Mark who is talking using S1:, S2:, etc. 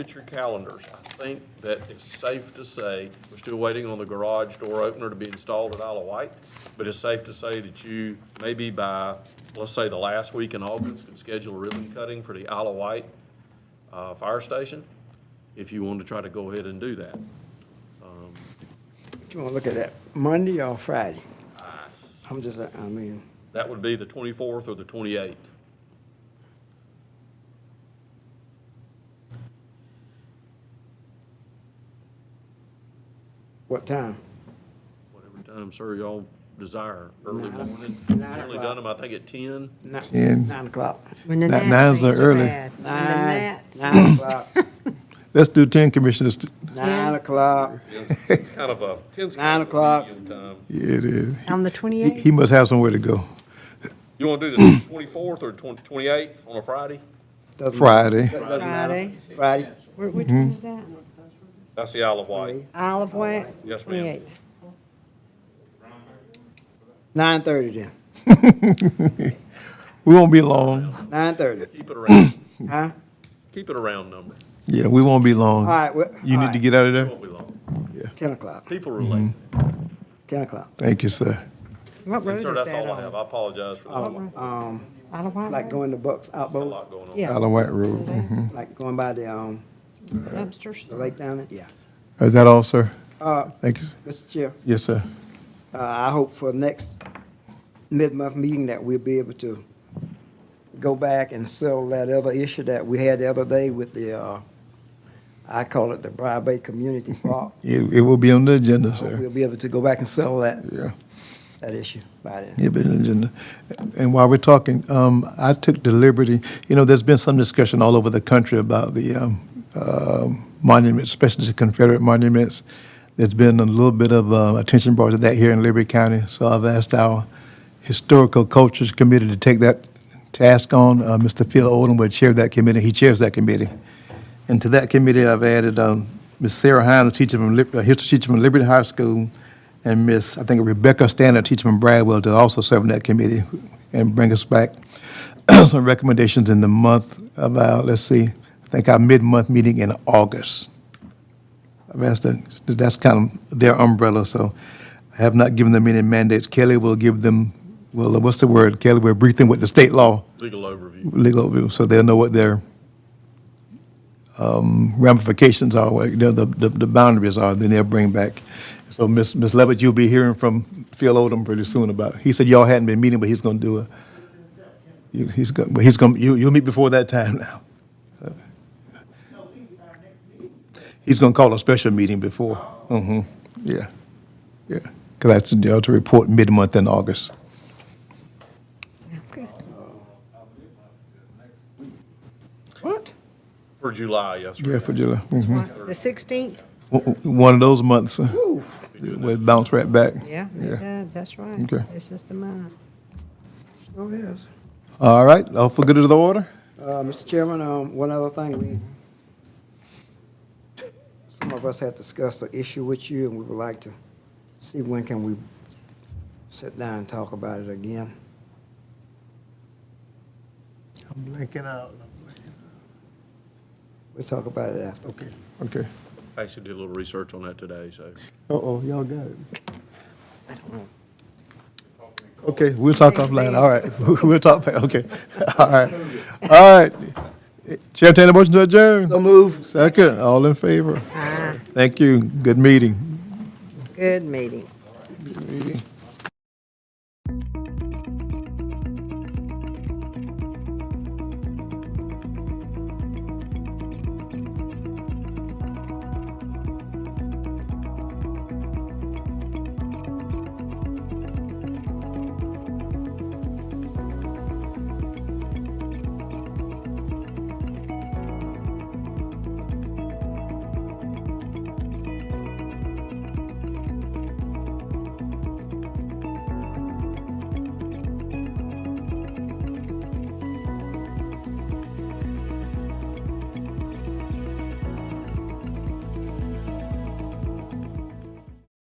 S1: at your calendars, I think that it's safe to say, we're still waiting on the garage door opener to be installed at Isle of Wight, but it's safe to say that you, maybe by, let's say, the last week in August, could schedule a ribbon cutting for the Isle of Wight uh, Fire Station, if you want to try to go ahead and do that.
S2: Do you want to look at that Monday or Friday?
S1: I s-
S2: I'm just, I mean,
S1: That would be the 24th or the 28th.
S2: what time?
S1: Whatever time, sir, y'all desire, early
S2: Nine-
S1: morning.
S2: nine
S1: Generally
S2: o'clock.
S1: done them, I think, at 10.
S2: Ni-
S3: Ten.
S2: Nine o'clock.
S4: When the
S3: That-
S4: gnats
S3: nines are
S4: ain't so
S3: early.
S4: bad. When the
S2: Nine,
S4: gnats-
S2: nine o'clock,
S3: Let's do ten commissioners.
S2: nine o'clock.
S1: It's kind of a, 10's
S2: Nine
S1: kind of a
S2: o'clock.
S1: medium time.
S3: Yeah, it is.
S4: On the
S3: He, he
S4: 28th?
S3: must have somewhere to go.
S1: You want to do the twenty-fourth or twenty-eighth on a Friday?
S2: Doesn't-
S3: Friday.
S2: doesn't matter.
S4: Friday.
S2: Friday.
S4: Where- Which
S3: Mm-hmm.
S4: one is that?
S1: That's the Isle of Wight.
S4: Isle of Wight?
S1: Yes, ma'am.
S4: 28th.
S2: Nine thirty then,
S3: We won't be long.
S2: nine thirty,
S1: Keep it around,
S2: huh?
S1: keep it around number,
S3: Yeah, we won't be long.
S2: All right, well,
S3: You
S2: all
S3: need to
S2: right.
S3: get out of there.
S1: won't be long.
S2: ten o'clock,
S1: People relate.
S2: ten o'clock.
S3: Thank you, sir.
S4: What road
S1: And
S4: is
S1: sir,
S4: that
S1: that's all I
S4: on?
S1: have. I apologize for the
S2: Um, um,
S4: Isle of Wight
S2: like
S4: Road?
S2: going to Bucks
S1: a
S2: Outboard,
S1: lot going on.
S4: Yeah,
S3: Isle of Wight Road. mhm.
S2: like going by the, um, the
S4: dumpsters.
S2: lake down there, yeah.
S3: Is that all, sir?
S2: Uh,
S3: Thank you.
S2: Mr. Chair.
S3: Yes, sir.
S2: Uh, I hope for next mid-month meeting that we'll be able to go back and settle that other issue that we had the other day with the, uh, I call it the Briar Bay Community Park.
S3: It, it will be on the agenda,
S2: I hope
S3: sir.
S2: We'll be able to go back and settle that,
S3: Yeah,
S2: that issue by then.
S3: it'll be on the agenda. And while we're talking, um, I took the liberty, you know, there's been some discussion all over the country about the, um, uh, monuments, especially the Confederate monuments. There's been a little bit of, uh, attention brought to that here in Liberty County, so I've asked our Historical Cultures Committee to take that task on. Uh, Mr. Phil Odom would chair that committee, he chairs that committee. And to that committee, I've added um, Ms. Sarah Hines, teacher from, Lib- a history teacher from Liberty High School, and Ms., I think Rebecca Standard, teacher from Bradwell, to also serve on that committee and bring us back some recommendations in the month of our, let's see, I think our mid-month meeting in August. I've asked that, that's kind of their umbrella, so I have not given them any mandates. Kelly will give them, well, what's the word? Kelly will brief them with the state law
S1: Legal overview.
S3: legal overview, so they'll know what their um, ramifications are, what the, the, the boundaries are, then they'll bring back. So Ms. Ms. Levitt, you'll be hearing from Phil Odom pretty soon about, he said y'all hadn't been meeting, but he's gonna do a, you- he's gonna, but he's gonna, you, you'll meet before that time now. He's gonna call a special meeting before. Mm-hmm, yeah, yeah. Cause that's, y'all to report mid-month in August.
S4: Sounds good.
S2: What?
S1: For July, yes, sir.
S3: Yeah, for July. Mhm.
S4: The 16th?
S3: W- w- One of those months, uh, we bounce right back.
S4: Yeah, it does, that's right.
S3: Okay.
S4: This is the month.
S2: Oh, yes.
S3: All right, all for good of the order?
S2: Uh, Mr. Chairman, um, one other thing, we, some of us had discussed the issue with you, and we would like to see when can we sit down and talk about it again.
S3: I'm blanking out.
S2: We'll talk about it after.
S3: Okay. Okay.
S1: I actually did a little research on that today, so.
S3: Uh-oh, y'all got it. Okay, we'll talk offline, all right. We'll talk, back. okay, all right. All right. Chair, entertain a motion to adjourn.
S2: So move.
S3: Second, all in favor? Thank you, good meeting.
S4: Good meeting.
S3: Meeting.